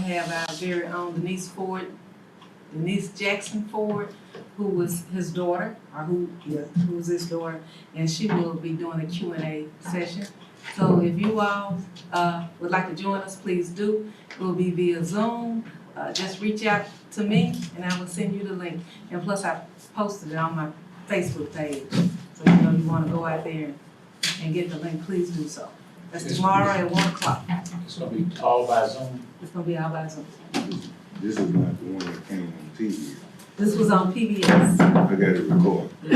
have our very own Denise Ford, Denise Jackson Ford, who was his daughter, or who, yeah, who was his daughter, and she will be doing a Q and A session. So if you all, uh, would like to join us, please do. It will be via Zoom. Uh, just reach out to me and I will send you the link. And plus I posted it on my Facebook page. So you know you wanna go out there and- and get the link, please do so. That's Yes, tomorrow at one o'clock. It's gonna be all by Zoom. It's gonna be all by Zoom. This is not the one that came on TV. This was on PBS. I got it recorded. I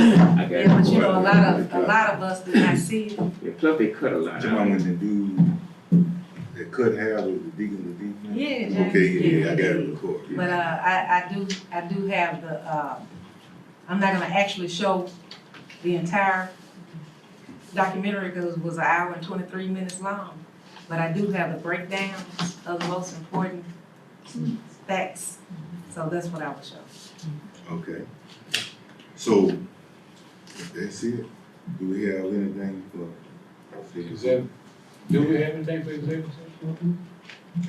got Yeah, but you know, a lot of, a recorded. lot of us did not see it. Yeah, plus they cut a lot The one out. when the dude that cut hair was the deacon of the Yeah, deacon? James Okay, yeah, yeah, I got Deacon. it recorded. But uh, I, I do, I do have the, uh, I'm not gonna actually show the entire documentary because it was an hour and twenty-three minutes long. But I do have the breakdown of the most important facts, so that's what I will show. Okay. So, that's it? Do we have anything for? Executive, do we have anything for executive session?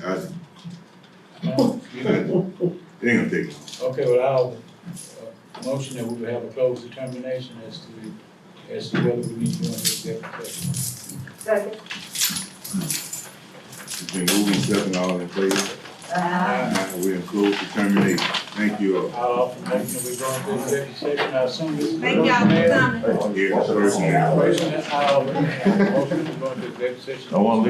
I, No? You don't? they ain't gonna take long. Okay, well, I'll, uh, motion that we would have a close determination as to, as to whether we need to go into executive session. Second. It's been moving seven all in favor. Uh-uh. Now We're in close determination. Thank you all. I'll offer motion that we go into executive session, I assume this is. Thank y'all for coming. Yeah, personnel. Personnel, I'll, motion to go into executive session. I wanna